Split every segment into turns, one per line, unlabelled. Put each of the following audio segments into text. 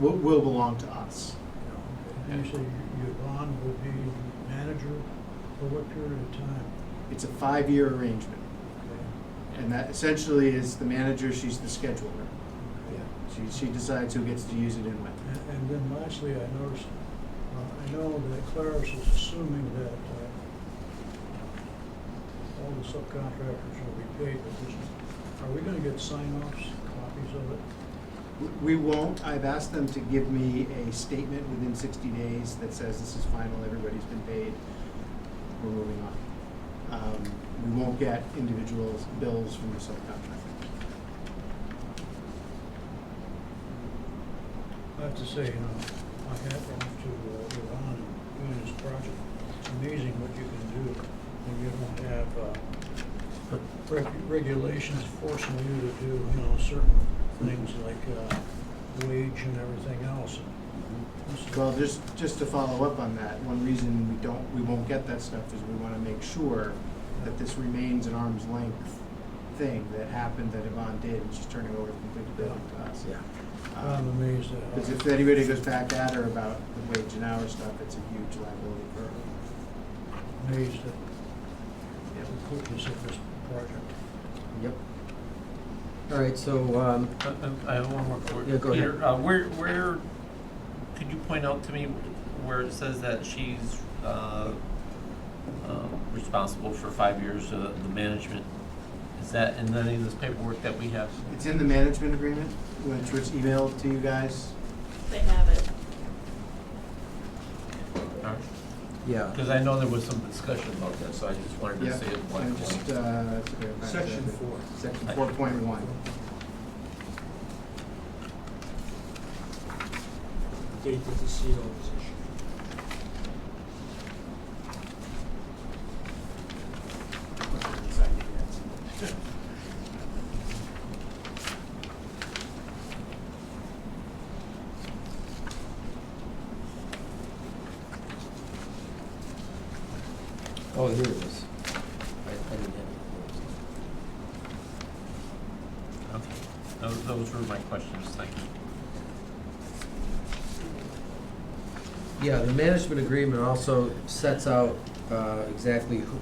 will, will belong to us. you know.
Usually your bond would be manager for what period of time?
It's a five-year arrangement, and that essentially is the manager, she's the scheduler. She, she decides who gets to use it and when.
And, and then lastly, I noticed, uh, I know that Claris is assuming that, uh, all the subcontractors will be paid, but is, are we gonna get sign-offs, copies of it?
W- We won't, I've asked them to give me a statement within sixty days that says this is final, everybody's been paid, we're moving on. Um, we won't get individual bills from the subcontractor.
I have to say, you know, my hat off to uh, Iran and doing this project. It's amazing what you can do when you don't have uh, reg- regulations forcing you to do, you know, certain things like uh, wage and everything else. This is-
Well, just, just to follow up on that, one reason we don't, we won't get that stuff is we wanna make sure that this remains an arm's length thing that happened that Yvonne did, and she's turning over the complete building to us.
I'm amazed
Because
at
if anybody goes back at her about the wage and hour stuff, it's a huge liability for her.
how, amazed at the quickness of this project.
Yep. All right, so, um,
Uh, uh, I have one more. for-
Yeah, go ahead.
Peter, uh, where, where, could you point out to me where it says that she's, uh, uh, responsible for five years of the management? Is that in any of this paperwork that we have?
It's in the management agreement, which was emailed to you guys.
They have it.
yeah.
Because I know there was some discussion about that, so I just wanted to
Yeah.
see it one
And just,
point.
uh, that's a great-
Section four.
Section four point one.
date that the CO was issued.
Oh, here it is. I, I didn't have
Okay, those, those were my questions, thank you.
it. Yeah, the management agreement also sets out, uh, exactly who,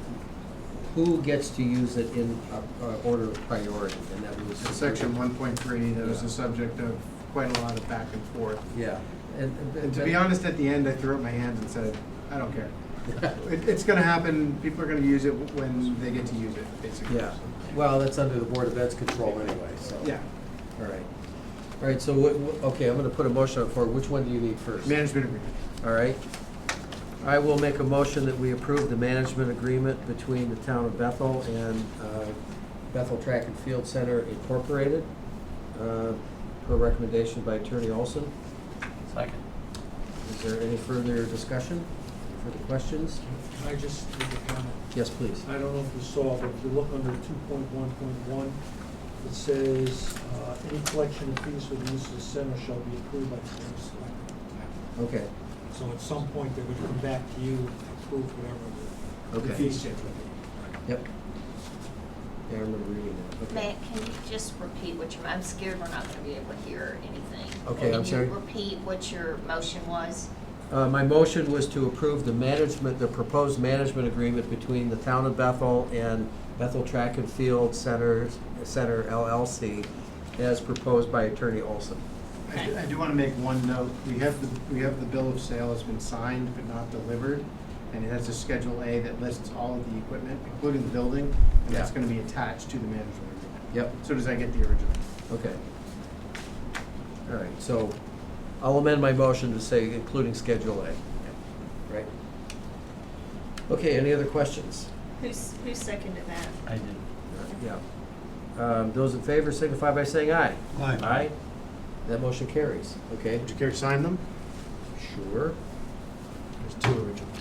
who gets to use it in, uh, uh, order of priority, and that was.
So Section one point three, that was the subject of quite a lot of back and forth.
Yeah, and.
And to be honest, at the end, I threw up my hands and said, I don't care. It, it's gonna happen, people are gonna use it when they get to use it, basically.
Yeah, well, that's under the Board of Ed's control anyway, so.
Yeah,
All right. All right, so, what- what- okay, I'm gonna put a motion on for, which one do you need first?
management agreement.
All right. I will make a motion that we approve the management agreement between the town of Bethel and uh, Bethel Track and Field Center Incorporated, uh, per recommendation by Attorney Olson.
Second.
Is there any further discussion, further questions?
Can I just make a comment?
Yes, please.
Uh,
I don't know if you saw, but if you look under two point one point one, it says, uh, any collection of fees for the use of the center shall be approved by the board of selectmen.
Okay,
So at some point, they're gonna come back to you and approve whatever the- the
Okay.
fee schedule. is.
yep. Yeah, I remember reading that, okay.
Matt, can you just repeat what your, I'm scared we're not gonna be able to hear anything.
Okay, I'm sorry.
Can you repeat what your motion was?
Uh, My motion was to approve the management, the proposed management agreement between the Town of Bethel and Bethel Track and Field Center, Center LLC, as proposed by Attorney Olson.
I do- I do want to make one note. We have, the we have the bill of sale has been signed but not delivered, and it has a Schedule A that lists all of the equipment, including the building, and that's
Yeah.
going to be attached to the management agreement.
Yep.
So does I get the original?
Okay. All right, so I'll amend my motion to say including Schedule A. Right? Okay, any other questions?
Who's, who seconded that?
I did.
Yeah. Um, Those in favor signify by saying aye.
Aye.
Aye. That motion carries, okay?
Would you care to sign them?
Sure.
There's two originals.